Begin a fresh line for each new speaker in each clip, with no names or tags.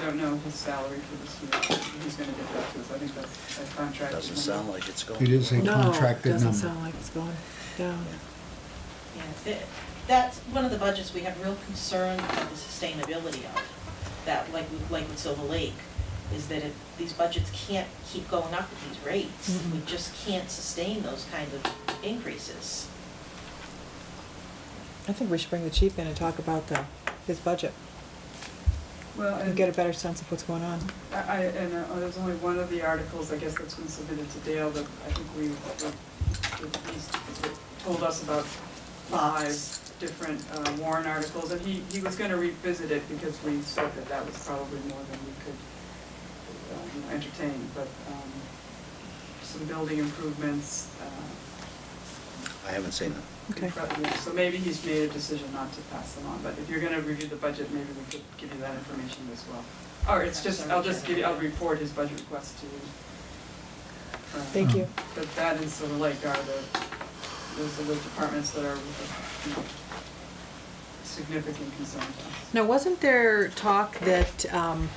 don't know his salary for this year, he's gonna get that to us, I think that's a contract.
Doesn't sound like it's going.
It is a contracted
No, doesn't
number.
sound like it's going down.
Yeah, that- That's one of the budgets we have real concern about the sustainability of, that like, with- like with Silver Lake, is that if these budgets can't keep going up at these rates, we
Mm-hmm.
Mhm.
just can't sustain those kind of increases.
I think we should bring the chief in and talk about the, his budget
Well,
and
and
get a better sense of what's going on.
I, I- and uh, there's only one of the articles, I guess that's been submitted to Dale, that I think we, that he's told us about five different uh, warrant articles, and he, he was gonna revisit it because we said that that was probably more than we could um, entertain, but, um, some building improvements, uh,
I haven't seen it.
Okay.
Probably. So maybe he's made a decision not to pass them on, but if you're gonna review the budget, maybe we could give you that information as well. Or it's just, I'll just give you, I'll report his budget request to you. Uh,
Thank you.
But that and Silver Lake are the, those are the departments that are, you know, significant concern to us.
Now, wasn't there talk that um,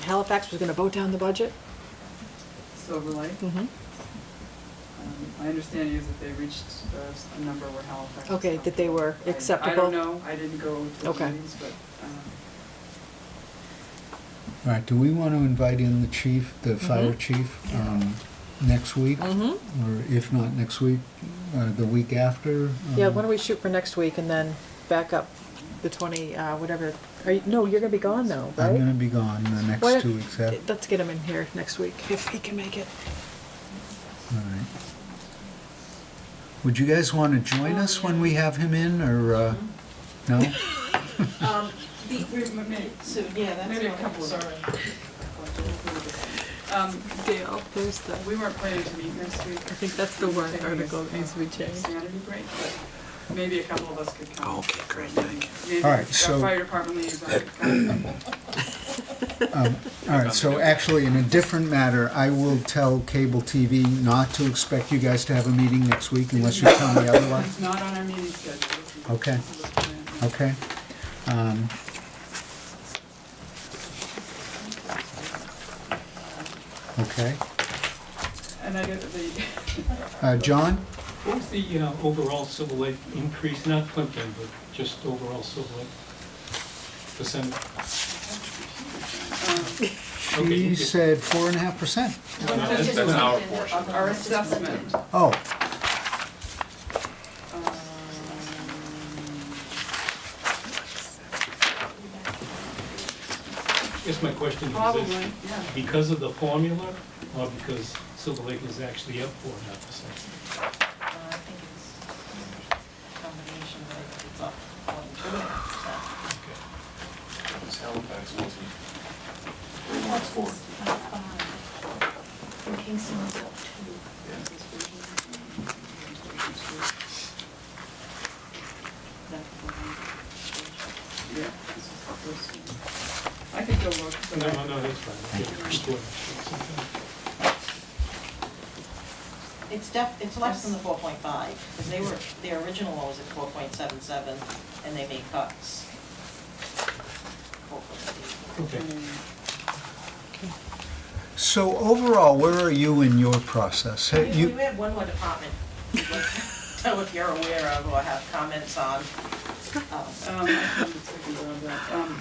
Halifax was gonna vote down the budget?
Silver Lake, um,
Mm-hmm.
my understanding is that they reached uh, a number where Halifax. was
Okay, that they were
I- I
acceptable?
don't know, I didn't go to the
Okay.
meetings, but, um,
All right, do we want to invite in the chief, the fire
Mhm.
chief, um, next week?
Mhm.
Or if not next week, uh, the week after?
Yeah,
Um,
why don't we shoot for next week and then back up the 20, uh, whatever. Are you, no, you're gonna be gone though,
I'm gonna
right?
be gone the
Why-
next two weeks after.
Let's get him in here next week, if he can make it.
All right. Would you guys want to join us when we have him in, or, uh,
Mm-hmm.
no?
Um, the,
we may,
so, yeah, that's
Maybe a
my
couple of-
concern.
Um,
Dale, there's the,
we weren't planning to meet next week.
I think that's the warrant
Taking a,
article that needs to be
uh,
changed.
Sanity break, but maybe a couple of us could come.
Okay, great, thank you.
Maybe
All right,
our
so-
fire department liaison could come.
Um, All right, so actually, in a different matter, I will tell cable TV not to expect you guys to have a meeting next week unless you tell me otherwise,
It's not on our meeting schedule. It's-
Okay.
it's-
okay? Um, Okay.
And I get the,
Uh, John?
What was the uh, overall Silver Lake increase, not Plimpton, but just overall Silver Lake percent? Okay,
He
okay.
said four and a half percent.
No, no,
That's
that's-
just-
that's our
um, of our assessment.
Oh,
um,
I guess my question is,
Probably,
is
yeah.
because of the formula, or because Silver Lake is actually up four and a half percent?
Uh, I think it's a combination, but I think it's up one, two, and a half
Okay.
It's Halifax, wasn't
What's four? Kingston was up two.
percent. That's
Yeah, this is the first one. I could go look, but
No,
I-
no, no, that's fine. Okay, it's four and a half percent.
the one. It's def, it's less than the four point five, because they were, their original one was at four point seven seven, and they made cuts.
Okay.
so overall, where are you in your process?
We
Have
we
you-
have one more department, we'd like to know if you're aware of or have comments on. Um,
Um, I can take a look at that. Um,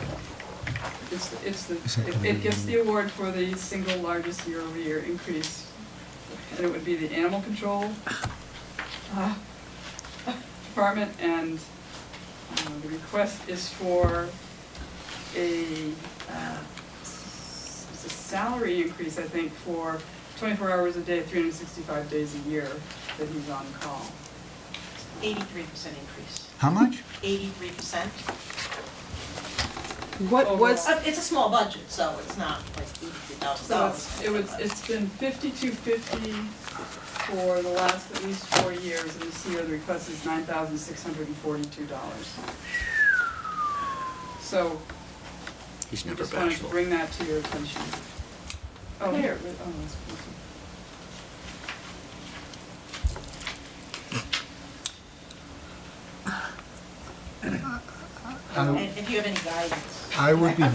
It's, it's the,
Is that
it-
gonna
it gets
be-
the award for the single largest year-over-year increase, and it would be the animal control uh, department, and uh, the request is for a, uh, s- it's a salary increase, I think, for twenty-four hours a day, three hundred and sixty-five days a year that he's on call.
83% increase.
How much?
83%.
What was,
Uh, It's a small budget, so it's not like $83,000.
So it's, it was, it's been fifty-two fifty for the last at least four years, and this year the request is nine thousand six hundred and forty-two dollars. So,
He's
I
never
just wanted to
bashful.
bring that to your attention. Oh, here, it- oh, that's,
And if you have any guidance.
I would be